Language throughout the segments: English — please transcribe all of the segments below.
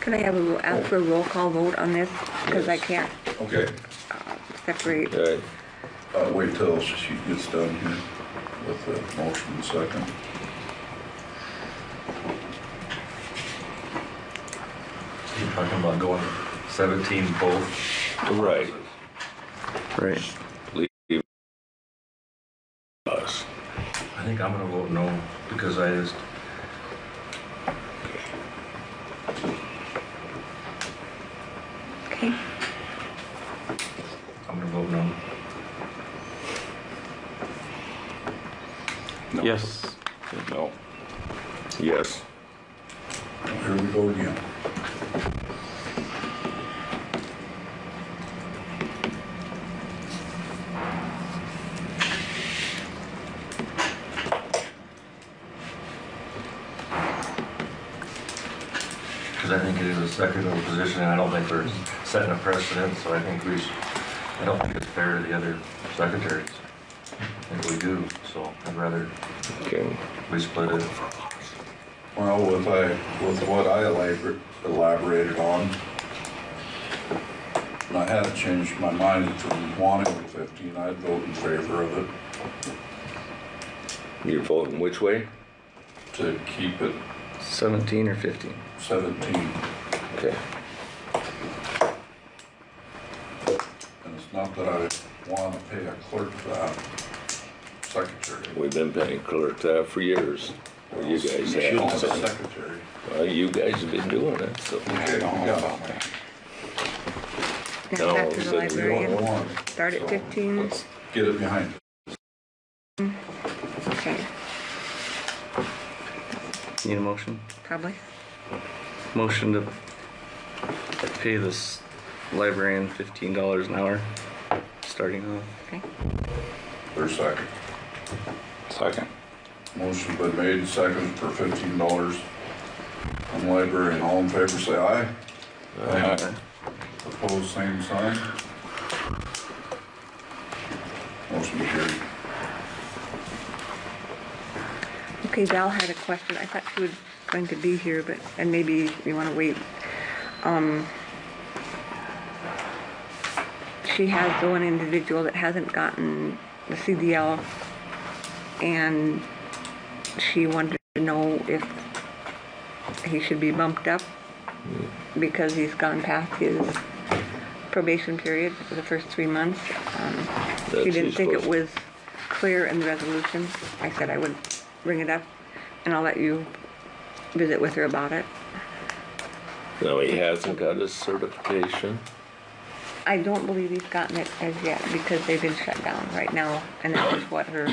Could I have a, ro- ask for a roll call vote on this? Because I Yes. can't Okay, separate. All right. uh, wait till she gets done here with the motion and second. You're talking about going 17 both. Right. Right. Us. I think I'm gonna vote no because I just, Okay, I'm gonna vote no. No. Yes. No. Yes. Here we go again. Because I think it is a secondary position and I don't think we're setting a precedent, so I think we should, I don't think it's fair to the other secretaries. I think we do, so I'd rather Okay. we split it. Well, with I, with what I elabor- elaborated on, and I had changed my mind from wanting the fifteen, I'd vote in favor of it You're voting which way? to keep it 17 or 15? seventeen. Okay. And it's not that I wanna pay a clerk that, secretary. We've been paying clerk that for years. Well, You guys She'll have have. a so- secretary. Well, you guys have been doing it, so. Okay, we got it. now back to so the we We don't librarian. want it. Start at So, 15. Let's get it behind us. Okay, Need a motion? probably. Motion to pay this librarian $15 an hour, starting off. Okay, There's second. Second. Motion been made, second for fifteen dollars on library, and all in favor, say aye. Aye. Opposed, same sign. Motion carried. Okay. Val had a question. I thought she was going to be here, but, and maybe you want to wait. Um, She has the one individual that hasn't gotten the CDL, and she wanted to know if he should be bumped up because he's gone past his probation period for the first three months. Um, That's She didn't his think it first- was clear in the resolution. I said I would bring it up, and I'll let you visit with her about it. No, he hasn't got his certification. I don't believe he's gotten it as yet because they've been shut down right now, and that was what her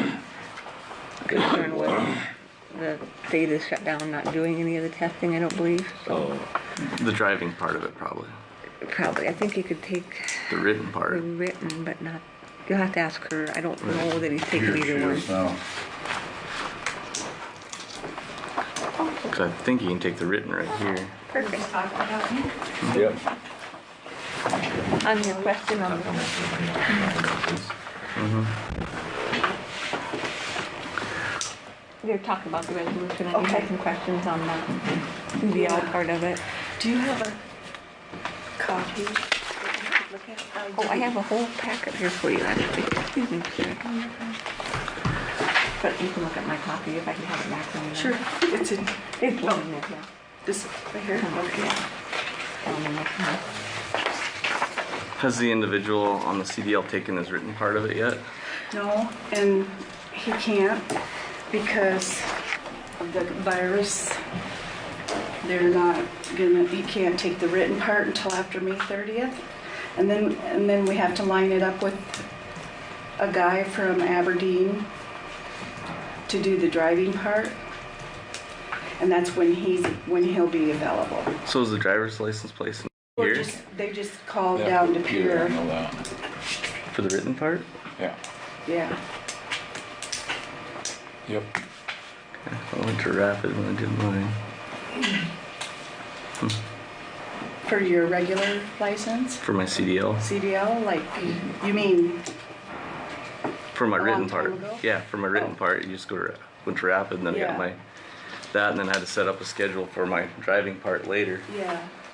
concern was. The state is shut down, not doing any of the testing, I don't believe. Oh, The driving part of it, probably. Probably, I think he could take The written the part. written, but not, you'll have to ask her. I don't know that he's taken Here she either one. is now. Because I think you can take the written right here. Perfect. talking about me. yep. On your question on the Mm-hmm. They're talking about the resolution, and you had Okay. some questions on the CDL part of it. Do you have a copy? that you could look at? Oh, I have a whole packet here for you, actually. Excuse me, sir. But you can look at my copy if I can have it back when you're Sure, done. it's in, It's long enough, yeah. this, right here, okay. Um, and that's fine. Has the individual on the CDL taken his written part of it yet? No, and he can't because of the virus. They're not gonna, he can't take the written part until after May 30th. And then, and then we have to line it up with a guy from Aberdeen to do the driving part. And that's when he's, when he'll be available. So is the driver's license placed in We're here just, they just called down to Pier, for the written part? Yeah, yeah. yep. I went to Rapid when I did mine. For your regular license, For my CDL. CDL, like, you mean For my A written long time part. ago? Oh. Yeah, for my written part, you just go to, Ra- went to Rapid and then I Yeah. got my, that and then had to set up a schedule for my driving part later. Yeah.